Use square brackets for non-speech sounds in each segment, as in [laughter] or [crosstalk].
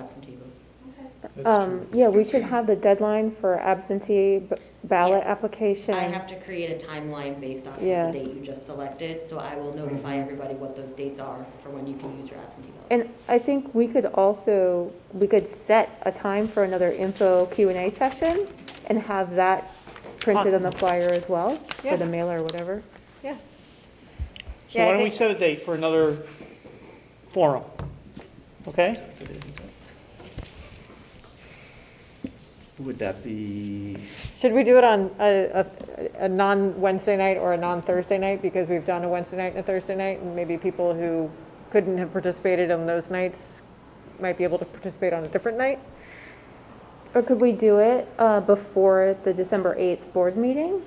absentee votes. That's Um, yeah, we should have the deadline for absentee b- ballot Yes. application. I have to create a timeline based off of Yeah. the date you just selected, so I will notify everybody what those dates are for when you can use your absentee ballot. And I think we could also, we could set a time for another info Q and A session and have that printed on the flyer as well, Yeah. or the mailer or whatever. Yeah. So Yeah, I why don't we think- set a date for another forum? Okay? Would that be, Should we do it on a, a, a non-Wednesday night or a non-Thursday night? Because we've done a Wednesday night and a Thursday night, and maybe people who couldn't have participated on those nights might be able to participate on a different night? Or could we do it uh, before the December 8th board meeting?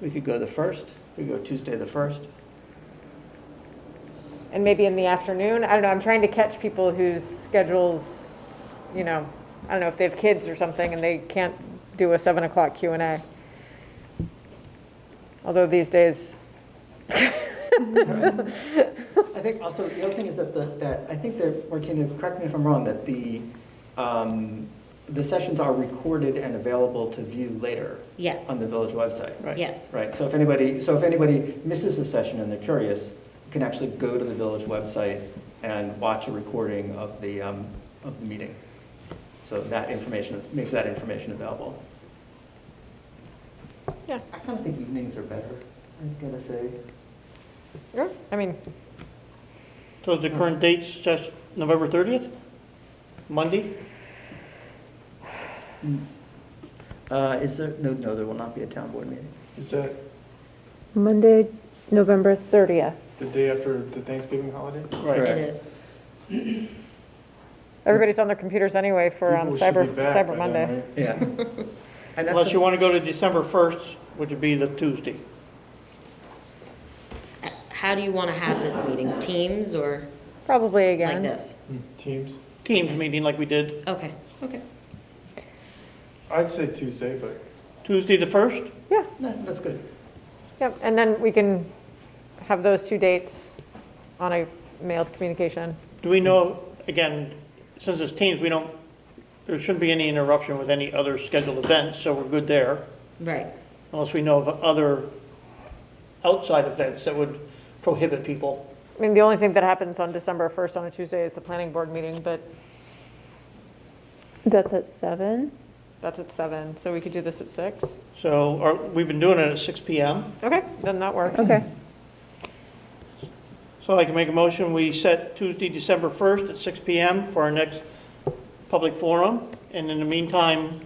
we could go the first, we could go Tuesday the first. And maybe in the afternoon? I don't know, I'm trying to catch people whose schedules, you know, I don't know, if they have kids or something and they can't do a seven o'clock Q and A. Although these days, I think also, the other thing is that the, that, I think that, Martina, correct me if I'm wrong, that the, um, the sessions are recorded and available to view later Yes, on the village website. Right. yes. Right, so if anybody, so if anybody misses a session and they're curious, you can actually go to the village website and watch a recording of the, um, of the meeting. So that information, makes that information available. Yeah. I kind of think evenings are better, I'm gonna say. yeah, I mean, So Mm-hmm. the current date's just November 30th? Monday? Uh, is there, no, no, there will not be a town board meeting. Is that Monday, November 30th. the day after the Thanksgiving holiday? It is. everybody's on their computers anyway for um, People should Cyber, be back by Cyber then, Monday. right? Yeah. And Unless that's, you want to go to December 1st, which would be the Tuesday. Uh, How do you want to have this meeting? Teams or Probably like again. this? Teams? Teams Mm-hmm. meeting like we did Okay, okay. I'd say Tuesday, but Tuesday the 1st? no, that's good. Yep, and then we can have those two dates on a mailed communication. Do we know, again, since it's teams, we don't, there shouldn't be any interruption with any other scheduled events, so we're good there. Right, Unless we know of other outside events that would prohibit people. I mean, the only thing that happens on December 1st on a Tuesday is the planning board meeting, but That's at 7? that's at seven, so we could do this at six. So, or, we've been doing it at 6 PM. Okay, then that works. Okay. So I can make a motion, we set Tuesday, December 1st at 6 PM for our next public forum. And in the meantime,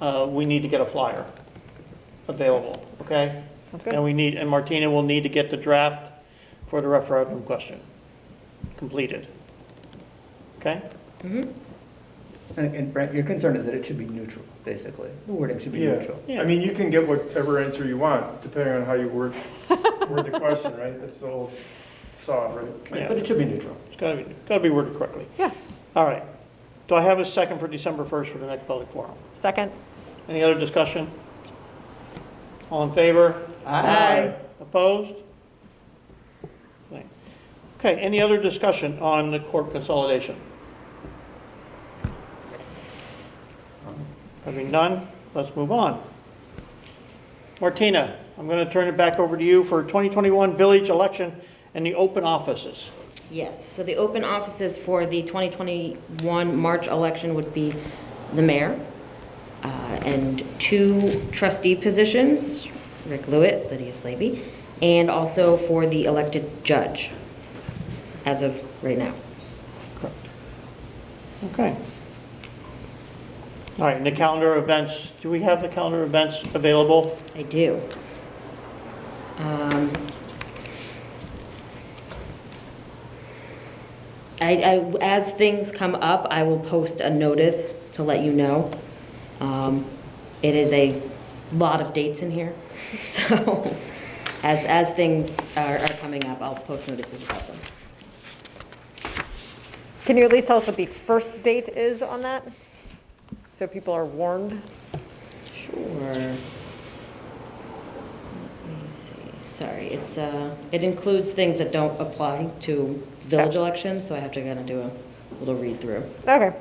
uh, we need to get a flyer available, okay? That's And good. we need, and Martina will need to get the draft for the referendum question completed. Okay? And, and Brent, your concern is that it should be neutral, basically. The wording should be yeah. neutral. Yeah. I mean, you can get whatever answer you want, depending on how you word, word the question, right? That's the whole saw, right? Yeah. But it should be neutral. It's gotta be, gotta be worded correctly. Yeah. All right. Do I have a second for December 1st for the next public forum? Second, Any other discussion? All in favor? Aye. Opposed? Okay, any other discussion on the court consolidation? Having none, let's move on. Martina, I'm going to turn it back over to you for 2021 village election and the open offices. yes. So the open offices for the 2021 March election would be the mayor uh, and two trustee positions, Rick Lewitt, Lydia Slavy, and also for the elected judge as of right now. Correct. Okay. All right, and the calendar events, do we have the calendar events available? I do. Um, I, I, as things come up, I will post a notice to let you know. Um, It is a lot of dates in here, [laughs] so as, as things are, are coming up, I'll post notices about them. can you at least tell us what the first date is on that? So people are warned? Sure. Let me see, sorry, it's, uh, it includes things that don't apply to village elections, so I have to kind of do a little read-through. Okay.